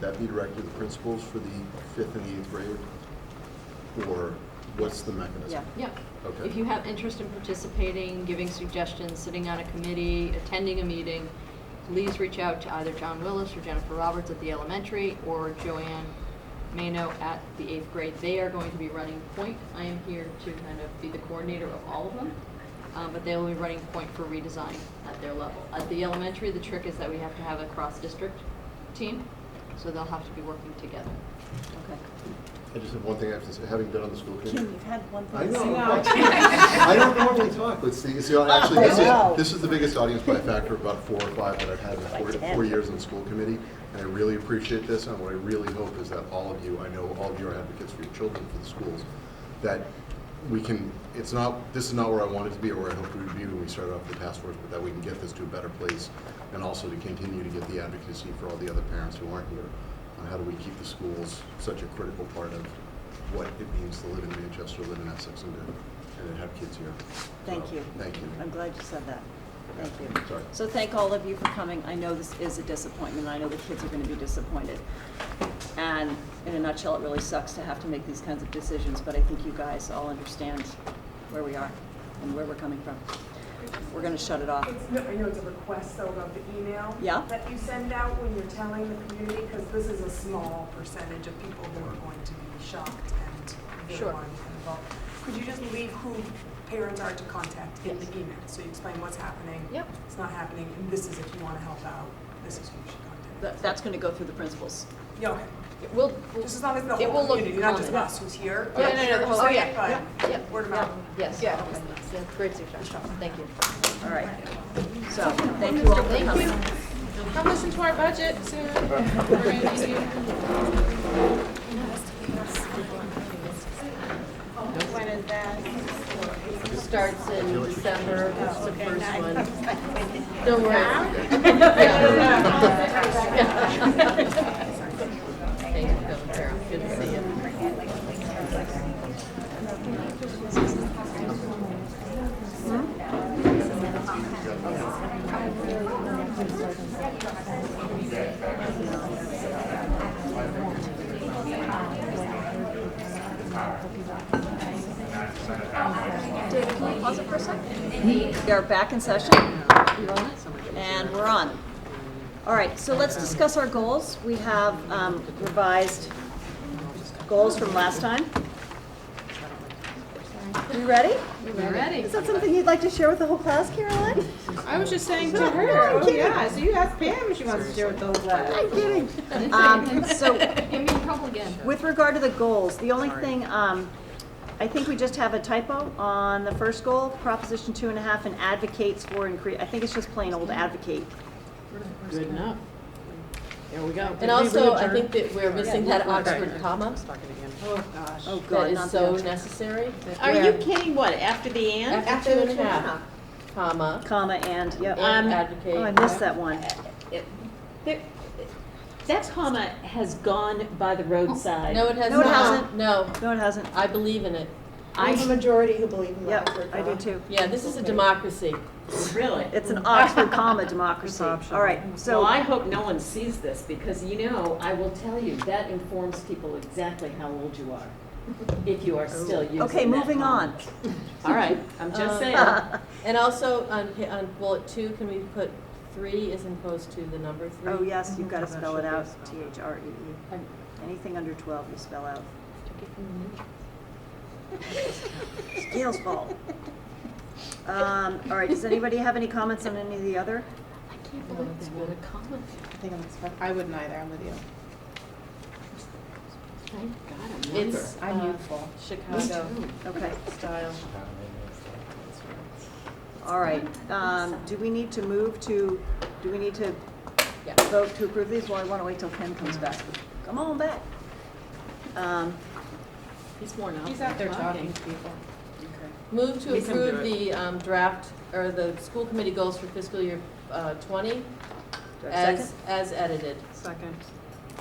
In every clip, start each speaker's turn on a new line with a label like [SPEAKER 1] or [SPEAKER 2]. [SPEAKER 1] that be directed to the principals for the fifth and the eighth grade? Or what's the mechanism?
[SPEAKER 2] Yeah, yeah.
[SPEAKER 1] Okay.
[SPEAKER 2] If you have interest in participating, giving suggestions, sitting on a committee, attending a meeting, please reach out to either John Willis or Jennifer Roberts at the elementary or Joanne Mano at the eighth grade. They are going to be running point. I am here to kind of be the coordinator of all of them. uh, But they will be running point for redesign at their level. At the elementary, the trick is that we have to have a cross-district team, so they'll have to be working together.
[SPEAKER 3] Okay.
[SPEAKER 1] I just have one thing I have to say, having been on the school committee.
[SPEAKER 3] Kim, you've had one
[SPEAKER 1] I
[SPEAKER 3] thing. to
[SPEAKER 1] know.
[SPEAKER 3] say.
[SPEAKER 1] I don't normally talk with Steve. See, actually, this
[SPEAKER 3] Wow.
[SPEAKER 1] is, this is the biggest audience by a factor of about four or five that I've had in
[SPEAKER 3] Like
[SPEAKER 1] four,
[SPEAKER 3] ten.
[SPEAKER 1] four years on the school committee. And I really appreciate this, and what I really hope is that all of you, I know all of you are advocates for your children, for the schools, that we can, it's not, this is not where I wanted to be or where I hoped we would be when we started off the task force, but that we can get this to a better place and also to continue to get the advocacy for all the other parents who aren't here on how do we keep the schools such a critical part of what it means to live in Manchester, live in Essex, and to, and to have kids here.
[SPEAKER 3] Thank
[SPEAKER 1] So,
[SPEAKER 3] you.
[SPEAKER 1] Thank you.
[SPEAKER 3] I'm glad you said that. Thank you.
[SPEAKER 1] Sorry.
[SPEAKER 3] So thank all of you for coming. I know this is a disappointment. I know the kids are going to be disappointed. And in a nutshell, it really sucks to have to make these kinds of decisions, but I think you guys all understand where we are and where we're coming from. We're going to shut it off.
[SPEAKER 4] It's, no, I know it's a request, so about the email.
[SPEAKER 3] Yeah.
[SPEAKER 4] That you send out when you're telling the community, because this is a small percentage of people who are going to be shocked and
[SPEAKER 2] Sure.
[SPEAKER 4] they're wanting to involve. Could you just leave who parents are to contact in the
[SPEAKER 2] Yes.
[SPEAKER 4] email? So you explain what's happening.
[SPEAKER 2] Yep.
[SPEAKER 4] It's not happening, and this is if you want to help out, this is who you should contact.
[SPEAKER 3] That- That's going to go through the principals.
[SPEAKER 4] Yeah, okay.
[SPEAKER 2] We'll, we'll-
[SPEAKER 4] Just as long as the
[SPEAKER 2] It will
[SPEAKER 4] whole
[SPEAKER 2] look
[SPEAKER 4] community, not just
[SPEAKER 2] common.
[SPEAKER 4] us who's here.
[SPEAKER 2] Yeah, no, no, the whole- oh, yeah, yeah,
[SPEAKER 4] But
[SPEAKER 2] yeah,
[SPEAKER 4] word of mouth.
[SPEAKER 2] Yes.
[SPEAKER 4] Yeah.
[SPEAKER 2] Yeah, Great suggestion. Thank you.
[SPEAKER 3] All right. So thank you all for
[SPEAKER 2] Thank you.
[SPEAKER 3] coming.
[SPEAKER 5] Come listen to our budget soon. We're gonna need you. When is that?
[SPEAKER 2] Starts in December, it's the first one. Don't worry. Thank you, Phil and Carol. Good to see you.
[SPEAKER 3] David, can you pause it for a second? We are back in session, and we're on. All right, so let's discuss our goals. We have um, revised goals from last time. You ready?
[SPEAKER 2] You ready?
[SPEAKER 3] Is that something you'd like to share with the whole class, Caroline?
[SPEAKER 5] I was just saying to her, oh yeah, so you asked Pam if she wants to share with those last.
[SPEAKER 3] I'm kidding. Um, So
[SPEAKER 2] Get me in trouble again.
[SPEAKER 3] With regard to the goals, the only thing, um, I think we just have a typo on the first goal, proposition two and a half, and advocates for increase, I think it's just plain old advocate.
[SPEAKER 6] Good enough. There we go.
[SPEAKER 7] And also, I think that we're missing that Oxford comma
[SPEAKER 6] Oh, gosh.
[SPEAKER 3] Oh,
[SPEAKER 7] that
[SPEAKER 3] God,
[SPEAKER 7] is
[SPEAKER 3] not
[SPEAKER 7] so
[SPEAKER 3] the
[SPEAKER 7] necessary.
[SPEAKER 6] Are you
[SPEAKER 3] where-
[SPEAKER 6] kidding? What, after the and?
[SPEAKER 7] After two and a half, comma,
[SPEAKER 3] comma and, yep.
[SPEAKER 7] and
[SPEAKER 3] Oh, I
[SPEAKER 7] advocate.
[SPEAKER 3] missed that one.
[SPEAKER 8] It- there- That comma has gone by the roadside.
[SPEAKER 7] No, it has
[SPEAKER 3] No, it
[SPEAKER 7] not.
[SPEAKER 3] hasn't.
[SPEAKER 7] No,
[SPEAKER 3] No, it hasn't.
[SPEAKER 7] I believe in it.
[SPEAKER 8] I have a majority who believe in the
[SPEAKER 3] Yep,
[SPEAKER 8] Oxford
[SPEAKER 3] I do
[SPEAKER 8] comma.
[SPEAKER 3] too.
[SPEAKER 7] Yeah, this is a democracy.
[SPEAKER 8] Oh, Really?
[SPEAKER 3] It's an Oxford comma democracy. All right,
[SPEAKER 8] Well, I
[SPEAKER 3] so,
[SPEAKER 8] hope no one sees this, because you know, I will tell you, that informs people exactly how old you are, if you are still
[SPEAKER 7] Oh.
[SPEAKER 8] using that
[SPEAKER 3] okay, moving
[SPEAKER 8] comma.
[SPEAKER 3] on.
[SPEAKER 8] All right, I'm just
[SPEAKER 7] Uh,
[SPEAKER 8] saying.
[SPEAKER 7] And also, on, pa- on bullet two, can we put three as opposed to the number three?
[SPEAKER 3] Oh, yes, you've got to spell it out, T-H-R-E-E. E Anything under 12, you spell out. It's Gail's fault. Um, All right, does anybody have any comments on any of the other?
[SPEAKER 5] I think I'm expect- I wouldn't either, I'm with you.
[SPEAKER 7] It's,
[SPEAKER 5] I'm
[SPEAKER 7] uh,
[SPEAKER 5] youthful.
[SPEAKER 7] Chicago
[SPEAKER 3] Okay,
[SPEAKER 7] style.
[SPEAKER 3] all right. Um, Do we need to move to, do we need to
[SPEAKER 7] Yeah.
[SPEAKER 3] vote to approve these? Well, I want to wait till Ken comes back. Come on back. Um,
[SPEAKER 7] He's worn out.
[SPEAKER 5] He's out there
[SPEAKER 7] from
[SPEAKER 5] talking to people.
[SPEAKER 7] Move to
[SPEAKER 6] Make him do
[SPEAKER 7] approve the um, draft, or the school committee goals for fiscal year uh, 20
[SPEAKER 3] do I have a
[SPEAKER 7] as,
[SPEAKER 3] second?
[SPEAKER 7] as edited.
[SPEAKER 6] Second.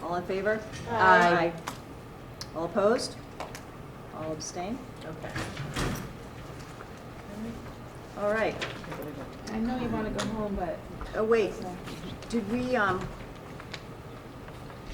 [SPEAKER 3] All in favor?
[SPEAKER 7] Aye.
[SPEAKER 3] All opposed? All abstain?
[SPEAKER 7] Okay.
[SPEAKER 3] All right.
[SPEAKER 5] I know you wanna go home, but
[SPEAKER 3] Oh, wait, did we, um,